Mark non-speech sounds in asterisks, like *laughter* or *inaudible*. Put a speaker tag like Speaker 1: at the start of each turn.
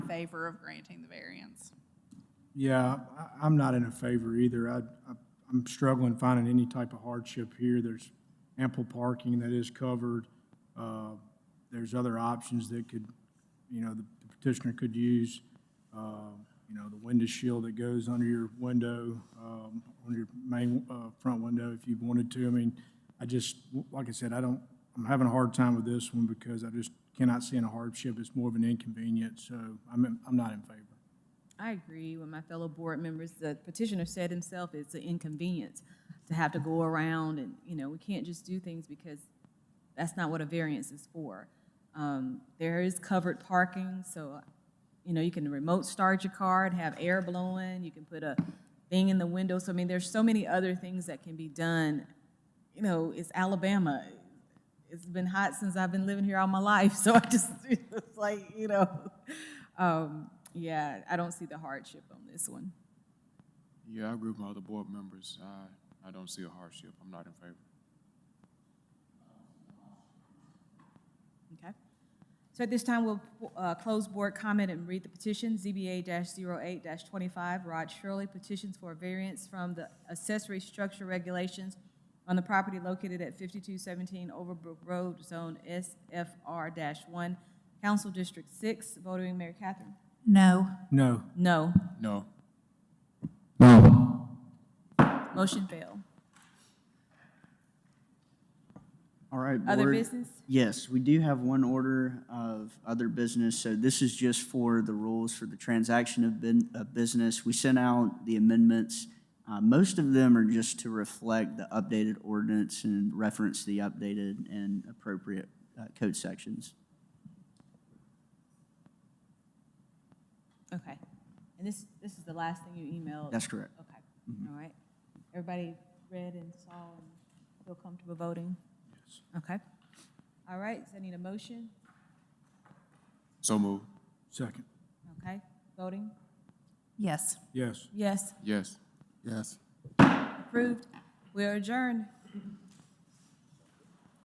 Speaker 1: favor of granting the variance.
Speaker 2: Yeah, I, I'm not in a favor either. I, I- I'm struggling finding any type of hardship here. There's ample parking that is covered. Uh, There's other options that could, you know, the petitioner could use, uh, you know, the window shield that goes under your window, um, on your main, uh, front window if you wanted to. I mean, I just, like I said, I don't, I'm having a hard time with this one because I just cannot see in a hardship. It's more of an inconvenience, so I'm, I'm not in favor.
Speaker 3: I agree with my fellow board members. The petitioner said himself, it's an inconvenience to have to go around and, you know, we can't just do things because that's not what a variance is for. Um, There is covered parking, so, you know, you can remote start your car and have air blowing. You can put a thing in the window. So I mean, there's so many other things that can be done. You know, it's Alabama. It's been hot since I've been living here all my life, so I just, *laughs* it's like, you know. Um, yeah, I don't see the hardship on this one.
Speaker 4: Yeah, I agree with my other board members. I, I don't see a hardship. I'm not in favor.
Speaker 3: Okay. So at this time, we'll uh, close board comment and read the petition, ZBA-08-25, Rod Shirley, petitions for a variance from the accessory structure regulations on the property located at 5217 Overbrook Road, Zone SFR-1, Council District 6, voting Mayor Catherine.
Speaker 5: No.
Speaker 2: No.
Speaker 3: No.
Speaker 4: No.
Speaker 3: Motion fail.
Speaker 6: All right.
Speaker 3: Other
Speaker 6: board.
Speaker 3: business?
Speaker 6: Yes, we do have one order of other business. So this is just for the rules for the transaction of bin- of business. We sent out the amendments. Uh, Most of them are just to reflect the updated ordinance and reference the updated and appropriate uh, code sections.
Speaker 3: Okay. And this, this is the last thing you emailed?
Speaker 6: That's correct. Mm-hmm.
Speaker 3: Okay, all right. Everybody read and saw and feel comfortable voting? Yes. Okay. All right, so I need a motion,
Speaker 4: So move.
Speaker 2: Second.
Speaker 3: okay? Voting?
Speaker 5: Yes.
Speaker 2: Yes.
Speaker 3: Yes.
Speaker 4: Yes. Yes.
Speaker 3: Approved. We are adjourned.